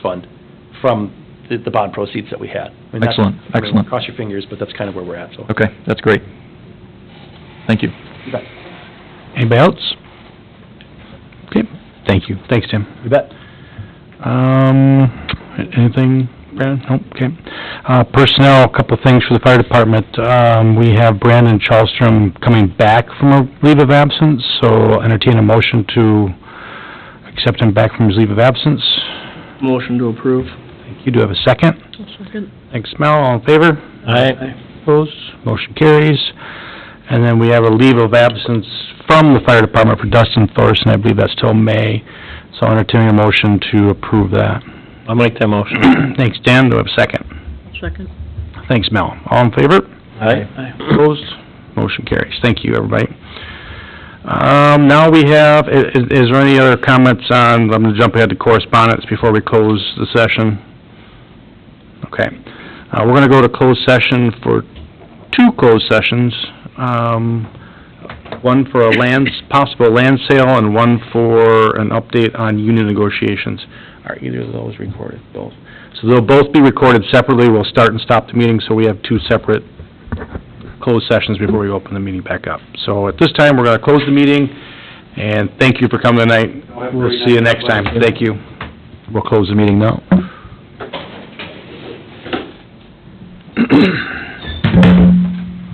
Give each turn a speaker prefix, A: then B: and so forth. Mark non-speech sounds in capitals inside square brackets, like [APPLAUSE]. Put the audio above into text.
A: fund from the, the bond proceeds that we had. I mean, that's-
B: Excellent,
A: I mean,
B: excellent.
A: Cross your fingers, but that's kind of where we're at, so.
B: Okay, that's great. Thank you.
A: You bet.
C: Anybody else? Okay, thank you. Thanks, Tim.
A: You bet.
C: Um, anything, Brandon? Nope, okay. Uh, personnel, a couple things for the fire department. Um, we have Brandon Charlstrom coming back from a leave of absence, so entertain a motion to accept him back from his leave of absence.
D: Motion to approve.
C: You do have a second? Thanks, Mel. All in favor?
D: Aye.
C: Opposed? Motion carries. And then we have a leave of absence from the fire department for Dustin Thorson, I believe that's till May. So I'll entertain a motion to approve that.
D: I'll make that motion.
C: [CLEARS THROAT] Thanks, Dan, do I have a second?
E: Second.
C: Thanks, Mel. All in favor?
D: Aye.
C: Opposed? Motion carries. Thank you, everybody. Um, now we have, i- is, is there any other comments on, I'm gonna jump ahead to correspondence before we close the session. Okay. Uh, we're gonna go to closed session for two closed sessions. Um, one for a land, possible land sale and one for an update on union negotiations. Are either of those recorded? Both. So they'll both be recorded separately. We'll start and stop the meeting, so we have two separate closed sessions before we open the meeting back up. So at this time, we're going to close the meeting, and thank you for coming tonight. We'll see you next time. Thank you. We'll close the meeting now.